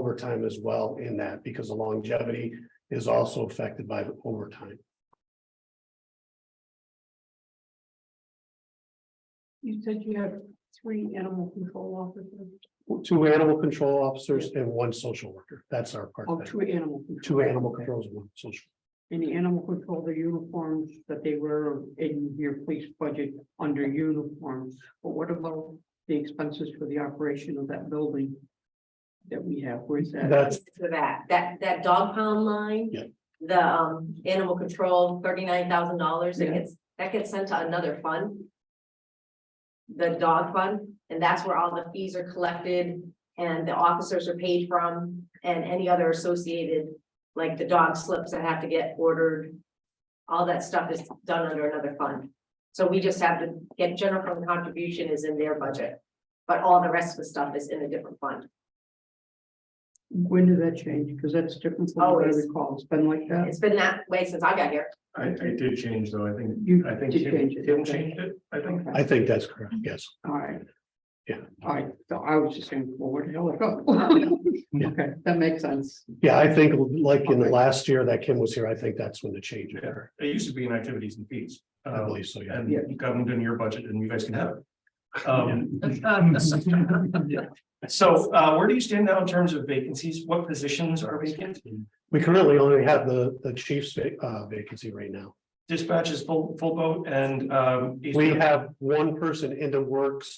overtime as well in that because the longevity is also affected by the overtime. You said you have three animal control officers, Two animal control officers and one social worker. That's our part. oh, two animal. control. Two animal controls, one social. And the animal control, the uniforms that they wear in your police budget under uniforms, but what about the expenses for the operation of that building? That we have, where's that? That's For that, that, that dog pound line. Yeah. The, um, animal control, thirty-nine thousand dollars, it Yeah. gets, that gets sent to another fund. The dog fund, and that's where all the fees are collected and the officers are paid from and any other associated. Like the dog slips that have to get ordered. All that stuff is done under another fund. So we just have to get general fund contribution is in their budget. But all the rest of the stuff is in a different fund. When did that change? Because that's different from what I Always. recall, it's been like that. It's been that way since I got here. I, I did change though, I think, You I think did Tim change it, Tim okay. changed it, I think. I think that's correct, yes. All right. Yeah. All right, so I was just saying, well, where the hell it go? Yeah. Okay, that makes sense. Yeah, I think like in the last year that Kim was here, I think that's when the change occurred. It used to be in activities and fees. I um, believe so, yeah. And you got them in your budget and you guys can have it. Um, So uh, where do you stand now in terms of vacancies? What positions are vacant? We currently only have the, the chief's va- uh, vacancy right now. Dispatch is full, full boat and um. We have one person in the works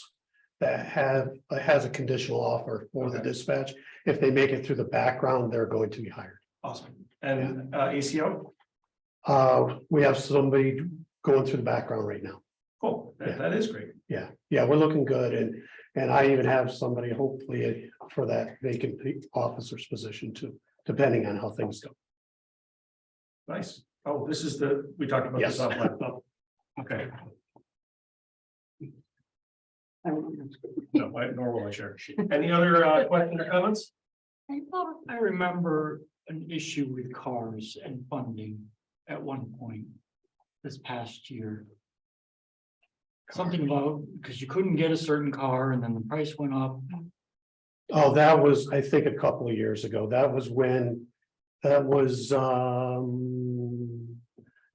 that have, that has a conditional offer for the Okay. dispatch. If they make it through the background, they're going to be hired. Awesome. And uh, ACO, Uh, we have somebody going through the background right now. cool, That- Yeah. that is great. Yeah, yeah, we're looking good and, and I even have somebody hopefully for that vacant officer's position too, depending on how things go. Nice. Oh, this is the, we talked about this Yes. offline. Oh, Okay, I don't know. no, I- nor will I share. Any other uh, questions or comments? I thought I remember an issue with cars and funding at one point this past year. Something about, because you couldn't get a certain car and then the price went up. Oh, that was, I think, a couple of years ago. That was when, that was, um,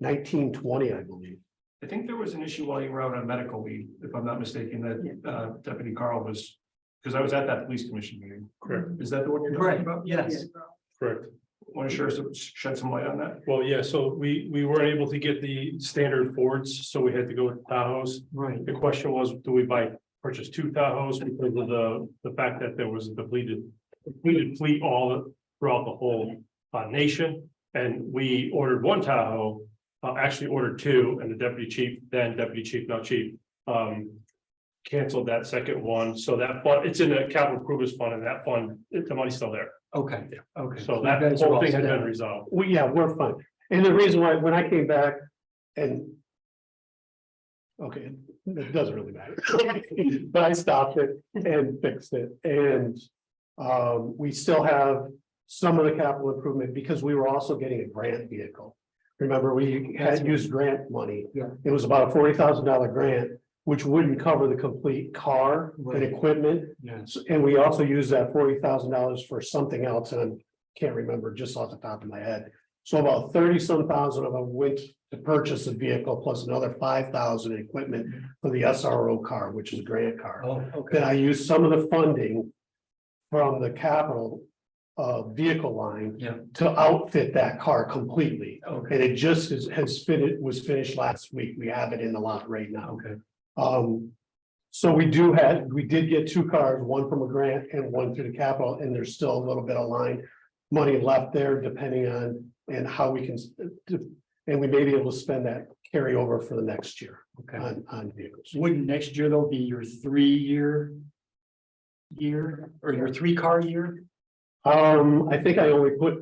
nineteen twenty, I believe. I think there was an issue while you were out on medical leave, if I'm not mistaken, that uh, Deputy Carl was, because I was at that police commission meeting. Correct. Is that the one you're talking about? Yes. Correct. Want to share some, shed some light on that? Well, yeah, so we, we weren't able to get the standard Fords, so we had to go with Tahoe's. Right. The question was, do we buy, purchase two Tahoe's because of the, the fact that there was a depleted, depleted fleet all throughout the whole uh, nation. And we ordered one Tahoe, uh, actually ordered two, and the deputy chief, then deputy chief, now chief, um, canceled that second one. So that, but it's in the capital improvements fund, and that fund, the money's still there. Okay, okay. So you that guys are whole all thing has set. been resolved. Well, yeah, we're fine. And the reason why, when I came back and okay, it doesn't really matter. But I stopped it and fixed it and um, we still have some of the capital improvement because we were also getting a grant vehicle. Remember, we had used grant money. Yeah. It was about a forty thousand dollar grant, which wouldn't cover the complete car and Right. equipment. Yes, So- And we also use that forty thousand dollars for something else, and I can't remember just off the top of my head. So about thirty some thousand of them went to purchase a vehicle, plus another five thousand in equipment for the SRO car, which is a grant car. Oh, Then I used some of the funding from the capital uh vehicle line. Yeah. To outfit that car completely, Okay, and it just is has fitted, was finished last week. We have it in the lot right now. okay. Um, so we do had, we did get two cars, one from a grant and one through the capital, and there's still a little bit of line. Money left there depending on and how we can, s- d- and we may be able to spend that carryover for the next year okay. on, on vehicles. Wouldn't next year though be your three-year year or your three-car year? Um, I think I only put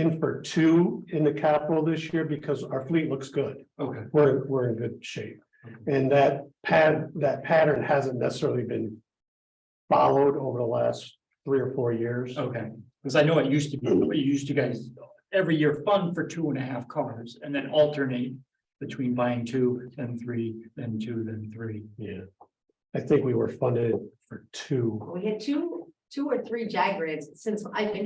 in for two in the capital this year because our fleet looks good. Okay, We're, we're in good shape. And that pad, that pattern hasn't necessarily been followed over the last three or four years. okay. Because I know it used to be, it used to guys every year fund for two and a half cars and then alternate between buying two, then three, then two, then three. Yeah. I think we were funded for two. We had two, two or three Jag rigs since I've been